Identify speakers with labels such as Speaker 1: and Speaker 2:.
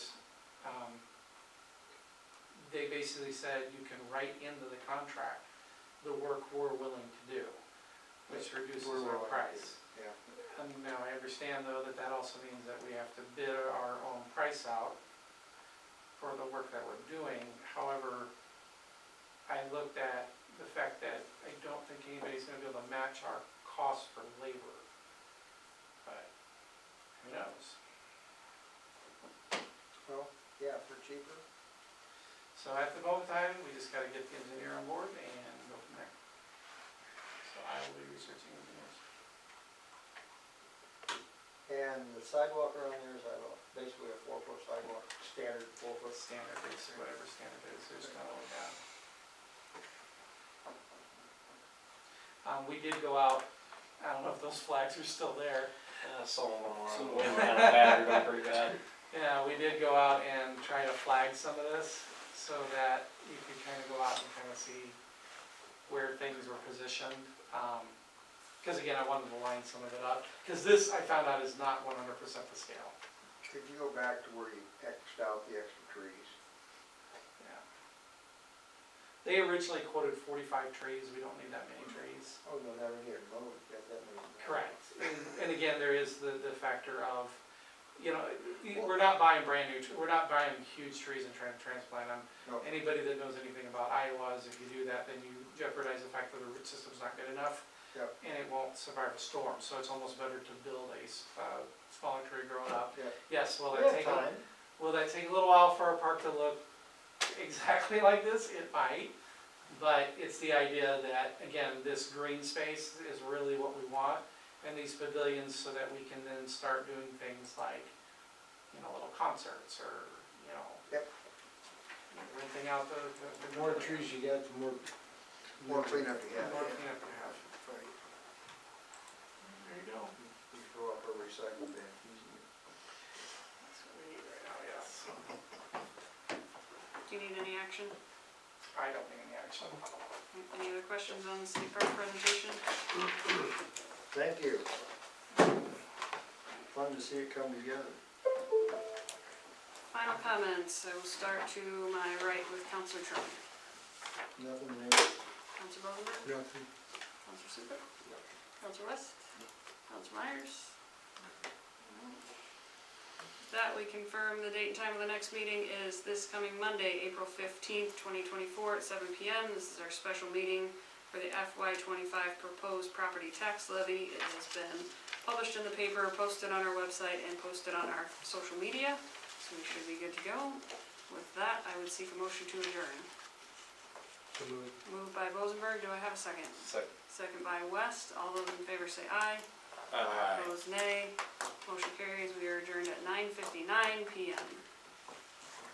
Speaker 1: Um, they basically said you can write into the contract the work we're willing to do, which reduces
Speaker 2: We're
Speaker 1: our
Speaker 2: willing to
Speaker 1: price.
Speaker 2: do, yeah.
Speaker 1: And now I understand though that that also means that we have to bid our own price out for the work that we're doing. However, I looked at the fact that I don't think anybody's gonna be able to match our cost for labor. But who knows?
Speaker 2: Well, yeah, for cheaper.
Speaker 1: So at the moment time, we just gotta get the engineer on board and go from there. So I will be researching engineers.
Speaker 2: And the sidewalk around there is like a- basically a four-foot sidewalk, standard
Speaker 1: What
Speaker 2: four-foot.
Speaker 1: standard is, whatever standard is, there's no, yeah. Um, we did go out, I don't know if those flags are still there,
Speaker 3: Uh, some of them
Speaker 4: Some
Speaker 3: were,
Speaker 4: of
Speaker 3: we
Speaker 4: them.
Speaker 3: were kind of battered up pretty bad.
Speaker 1: Yeah, we did go out and try to flag some of this so that you could kind of go out and kind of see where things were positioned. Because again, I wanted to line some of it up, because this, I found out, is not one hundred percent the scale.
Speaker 2: Could you go back to where you Xed out the extra trees?
Speaker 1: Yeah. They originally quoted forty-five trees, we don't need that many trees.
Speaker 2: Oh, no, never get mowed, that, that means.
Speaker 1: Correct, and, and again, there is the, the factor of, you know, we're not buying brand new, tr- we're not buying huge trees and trying to transplant them.
Speaker 2: No,
Speaker 1: anybody that knows anything about Iowa's, if you do that, then you jeopardize the fact that the root system's not good enough.
Speaker 2: Yep.
Speaker 1: And it won't survive a storm, so it's almost better to build a, s- uh, smaller tree growing up.
Speaker 2: Yep.
Speaker 1: Yes, will
Speaker 2: we
Speaker 1: that
Speaker 2: have
Speaker 1: take, a-
Speaker 2: time.
Speaker 1: will that take a little while for our park to look exactly like this? It might. But it's the idea that, again, this green space is really what we want, and these pavilions, so that we can then start doing things like, you know, little concerts or, you know.
Speaker 2: Yep.
Speaker 1: Renting out the, the.
Speaker 4: The more trees you got, the more.
Speaker 2: More cleanup you
Speaker 1: The
Speaker 2: have.
Speaker 1: more cleanup you have.
Speaker 2: Right.
Speaker 1: There you go.
Speaker 2: You throw up a recycle bin.
Speaker 1: That's what we need right now, yes.
Speaker 5: Do you need any action?
Speaker 1: I don't think any action.
Speaker 5: Any other questions on the city park presentation?
Speaker 2: Thank you. Fun to see it come together.
Speaker 5: Final comments, I will start to my right with Counselor Trump.
Speaker 2: Nothing new.
Speaker 5: Counselor Rosenberg?
Speaker 4: Nothing.
Speaker 5: Counselor Super? Counselor West? Counselor Myers? With That we confirm the date and time of the next meeting is this coming Monday, April fifteenth, twenty twenty-four at seven P M. This is our special meeting for the FY twenty-five proposed property tax levy. It has been published in the paper, posted on our website, and posted on our social media, so we should be good to go. With that, I would seek a motion to adjourn. Moved by Rosenberg, do I have a second?
Speaker 3: Second.
Speaker 5: Second by West, all those in favor say aye.
Speaker 3: uh,
Speaker 5: Opposed nay. Motion carries, we are adjourned at nine fifty-nine PM.